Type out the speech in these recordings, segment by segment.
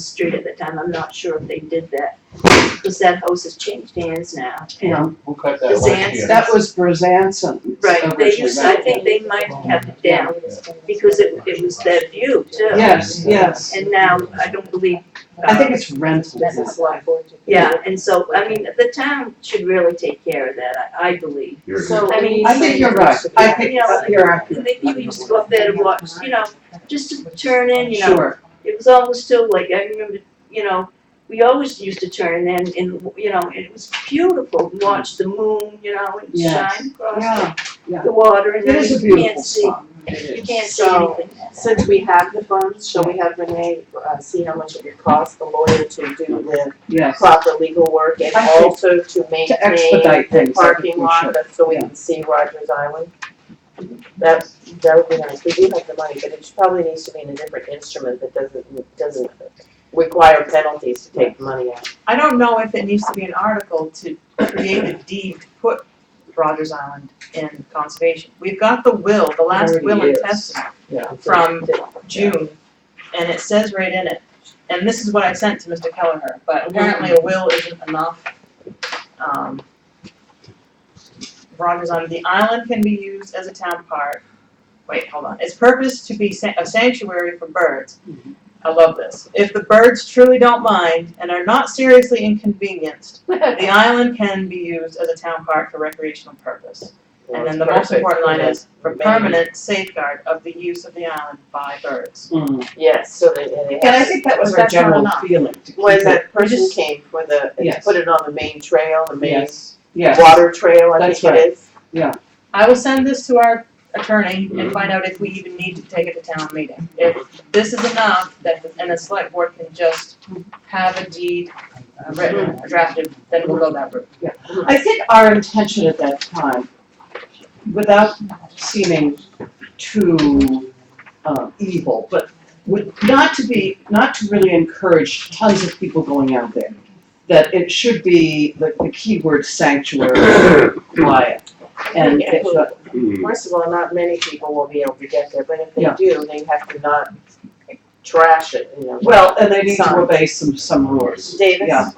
street at the time, I'm not sure if they did that, because that house has changed hands now. Yeah. Who cut The that last Zans- year? That was Brazanson. Right, they used, I originally. think they might have kept it down, because it, it was their view too. Yes, yes. uh, And uh, now, I don't believe. uh, I think it's rental. That's a blackboard. Yeah, and so, I mean, the town should really take care of that, I, I believe. So, I mean, I think you're right. I think you're accurate. Maybe we just go up there to watch, you know, just to turn in, you know, Sure. it was almost still like, I remember, you know, we always used to turn in and, you know, and it was beautiful, watch the moon, you know, and Yes. shine across Yeah, yeah. the water and It is a then you can't beautiful see, spot. you It can't is. see So- anything. Since we have the funds, shall we have Renee, uh, see how much it would cost the lawyer to do the Yes. proper legal work and I think- also to To maintain expedite the things, I think parking we lot, should. but so we can see Rogers Island? That, that would be nice, we do have the money, but it probably needs to be in a different instrument that doesn't, doesn't require penalties to take the money out. I don't know if it needs to be an article to create a deed to put Rogers Island in conservation. We've got the will, the last Already will and is. testament, Yeah. From June, and it says right in it, and this is what I sent to Mr. Kelleher, but apparently a will isn't enough. Um, Rogers Island, the island can be used as a town park. Wait, hold on. Its purpose to be san- a sanctuary for birds. I love this. If the birds truly don't mind and are not seriously inconvenienced, the island can be used as a town park for recreational purpose. And then the most important line is for permanent safeguard of the use of the island by birds. Mm. Yes, so they, and they have. And I think that was, That's our that's not general feeling. enough. to keep When it- that person Yes. came for the, Yes. put it on the main trail, the main Yes, yes. water trail, I That's think it is. I will send this to our attorney and find out if we even need to take it to town meeting. If this is enough, that, the- and the select board can just have a deed uh, written, drafted, then we'll go that route. I think our intention at that time, without seeming too um, evil, but would not to be, not to really encourage tons of people going out there. That it should be the, the keyword sanctuary, quiet, and it, but- First of all, not many people will be able to get there, but if they Yeah. do, they have to not trash it, you know. well, and they need to obey some, some rules. Davis? Yeah.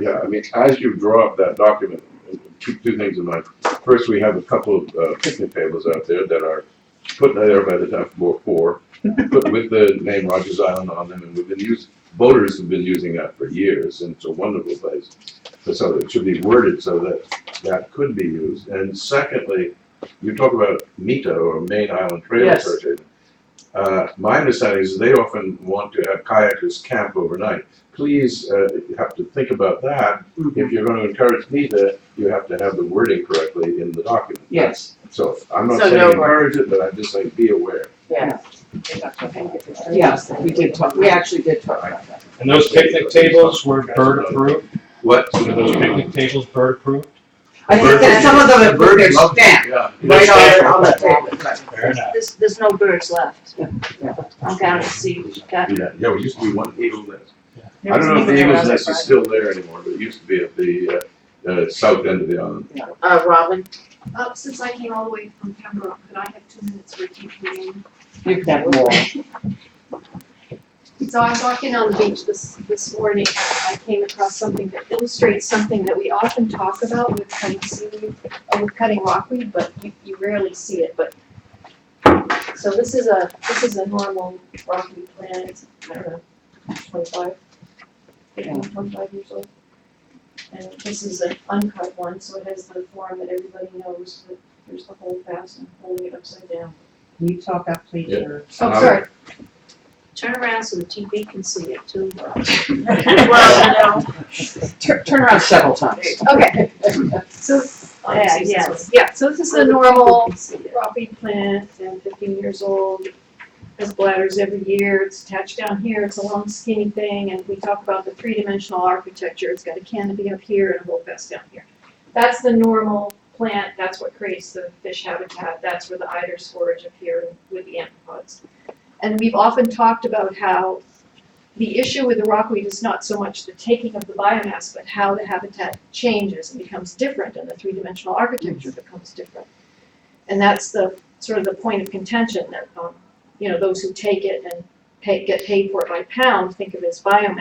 Yeah, I mean, as you draw up that document, two, two things in mind. First, we have a couple of uh, picnic tables out there that are put there by the town for, for, put with the name Rogers Island on them, and we've been used, voters have been using that for years, and it's a wonderful place. But So it should be worded so that that could be used. And secondly, you talk about MITA or Main Island Trail Yes. Association. Uh, my understanding is they often want to have kayakers camp overnight. Please, uh, you have to think about that if you're gonna encourage NEPA, you have to have the wording correctly in the document. Yes. So I'm not So saying no encourage it, but I'm just saying be aware. Yes, we did talk, we actually did talk about that. And those picnic tables were bird approved? What? Were those picnic tables bird approved? I think that some of them have put their Birds love- stamp Yeah. right on, on the table. Fair enough. There's, there's no birds left. Yeah. I'm down to see, got, Yeah, yeah, we used to be one Eagles Nest. I don't know if the Eagles Nest is still there anymore, but it used to be at the, uh, uh, south end of the island. Uh, Robin, Uh, since I came all the way from Pembroke, could I have two minutes for a deep meeting? You can have more. So I'm walking on the beach this, this morning, and I came across something that illustrates something that we often talk about with cutting seaweed, or with cutting rockweed, but you, you rarely see it, but. So this is a, this is a normal rockweed plant, it's, I don't know, twenty-five, Yeah. 25 years old. And this is an uncut one, so it has the form that everybody knows, that there's the whole fastener holding it upside down. can you talk up, please? Yeah. or- Oh, sorry. turn around so the TV can see it too. Well, you know, Tur- Turn around several times. Okay. So, yeah, Obviously, yeah, it's- yeah, so this is a normal rockweed plant, and fifteen years old, has bladders every year, it's attached down here, it's a long skinny thing, and we talk about the three-dimensional architecture, it's got a canopy up here and a whole vest down here. That's the normal plant, that's what creates the fish habitat, that's where the eiders forage up here with the amphipods. And we've often talked about how the issue with the rockweed is not so much the taking of the biomass, but how the habitat changes and becomes different and the three-dimensional architecture becomes different. And that's the, sort of the point of contention that, um, you know, those who take it and pay, get paid for it by pound think of it as biomass.